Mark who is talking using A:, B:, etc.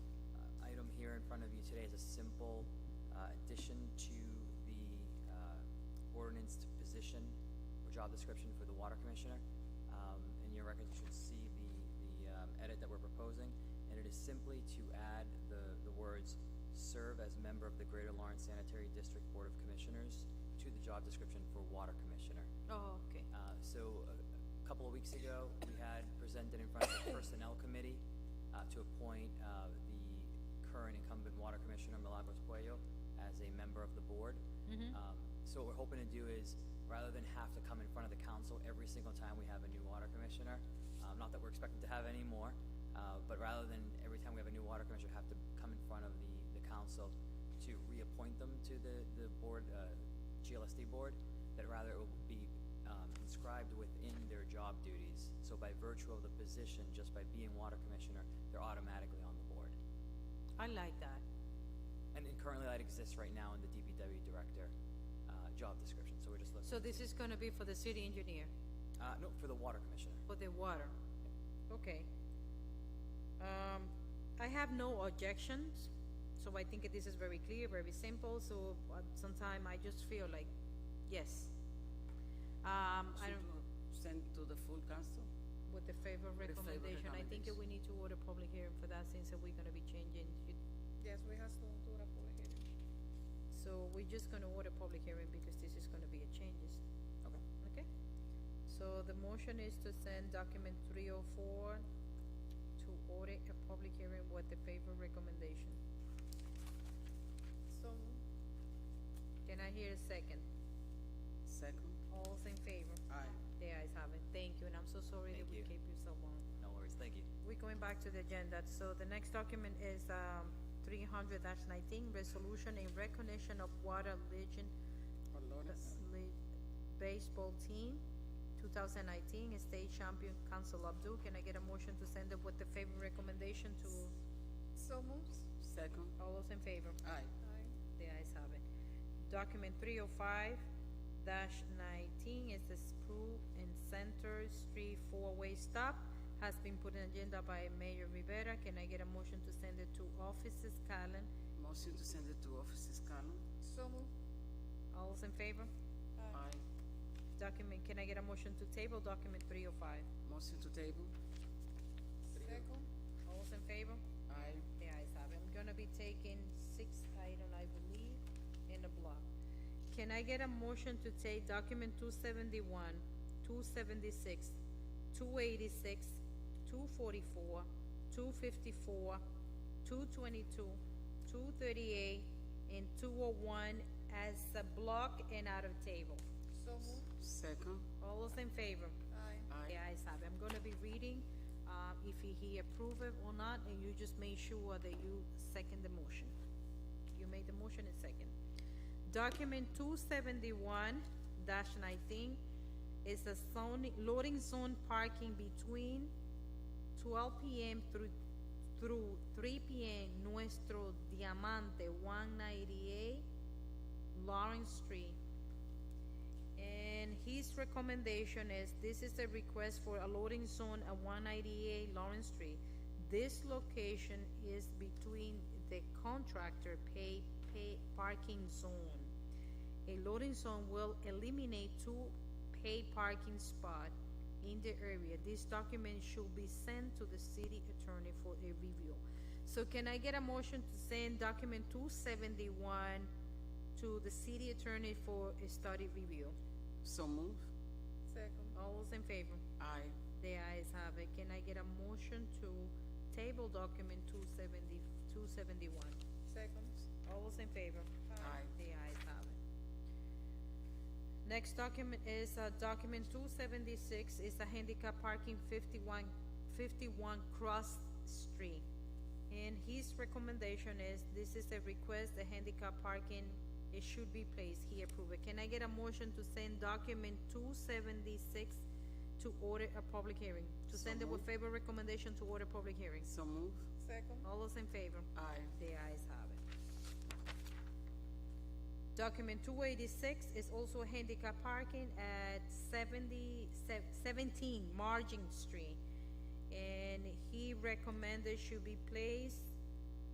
A: uh, uh, job description for the water commissioner. Um, in your records, you should see the, the, um, edit that we're proposing, and it is simply to add the, the words, serve as member of the Greater Lawrence Sanitary District Board of Commissioners to the job description for water commissioner.
B: Oh, okay.
A: Uh, So a- a couple of weeks ago, we had presented in front of the Personnel Committee uh, to appoint uh, the current incumbent Water Commissioner, Milagros Puello, as a member of the board. Um, So what we're hoping to do is, rather than have to come in front of the council every single time we have a new water commissioner, um, not that we're expected to have any more, uh, but rather than every time we have a new water commissioner, have to come in front of the, the council to reappoint them to the, the board, uh, GLSD board, that rather it will be um, inscribed within their job duties. So by virtue of the position, just by being water commissioner, they're automatically on the board.
B: Uh, I like that.
A: And then currently that exists right now in the DPW director uh, job description, so we're just looking.
B: So this is gonna be for the city engineer,
A: Uh, no, for the water commissioner.
B: for the water? Okay. Um, I have no objections, so I think this is very clear, very simple, so sometimes I just feel like, yes. Um, I don't,
C: Send to the full council?
B: with the favor recommendation, I think that we need to order public hearing for that since we're gonna be changing.
D: Yes, we have to do a public hearing.
B: So we're just gonna order public hearing because this is gonna be a changes.
A: Okay.
B: Okay, so the motion is to send document three oh four to order a public hearing with the favor recommendation.
D: So,
B: Can I hear a second?
C: Second?
B: All's in favor?
C: Aye.
B: The ayes have it, thank you, and I'm so sorry that
A: Thank you.
B: we kept you so long.
A: No worries, thank you.
B: We're going back to the agenda, so the next document is, um, three hundred nineteen, resolution in recognition of Water Legion
C: Dolores?
B: League baseball team, 2019 state champion Council Abdul. Can I get a motion to send it with the favor recommendation to
D: so moves?
C: Second?
B: all those in favor?
C: Aye.
D: Aye.
B: The ayes have it. Document 305-19 is the Spru and Center Street four-way stop. Has been put on agenda by Mayor Rivera. Can I get a motion to send it to offices, Callen?
C: Motion to send it to offices, Carmen?
D: So move?
B: All those in favor?
C: Aye.
B: Document, can I get a motion to table document 305?
C: Motion to table?
D: Second?
B: All those in favor?
C: Aye.
B: The ayes have it. I'm gonna be taking six item, I believe, in a block. Can I get a motion to take document two seventy-one, two seventy-six, two eighty-six, two forty-four, two fifty-four, two twenty-two, two thirty-eight, and two oh one as a block and out of table?
D: So move?
C: Second?
B: All those in favor?
D: Aye.
B: The
C: Aye.
B: ayes have it. I'm gonna be reading, uh, if he- he approve it or not, and you just make sure that you second the motion. You made the motion and second. Document two seventy-one nineteen is a zoning, loading zone parking between twelve PM through, through three PM Nuestro Diamante one ninety-eight Lawrence Street. And his recommendation is, this is a request for a loading zone at one ninety-eight Lawrence Street. This location is between the contractor pay, pay, parking zone. A loading zone will eliminate two paid parking spot in the area. This document should be sent to the city attorney for a review. So can I get a motion to send document two seventy-one to the city attorney for a study review?
C: So move?
D: Second?
B: All those in favor?
C: Aye.
B: The ayes have it. Can I get a motion to table document 270 271?
D: Second?
B: All those in favor?
C: Aye.
B: The ayes have it. Next document is, uh, document two seventy-six, is a handicap parking 51 51 Cross Street. And his recommendation is, this is a request, the handicap parking, it should be placed, he approved it. Can I get a motion to send document two seventy-six to order a public hearing? To
C: So
B: send it with
C: moved.
B: favor recommendation to order public hearings.
C: So move?
D: Second?
B: All those in favor?
C: Aye.
B: The ayes have it. Document two eighty-six is also handicap parking at 70 se- 17 Margin Street. And he recommended should be placed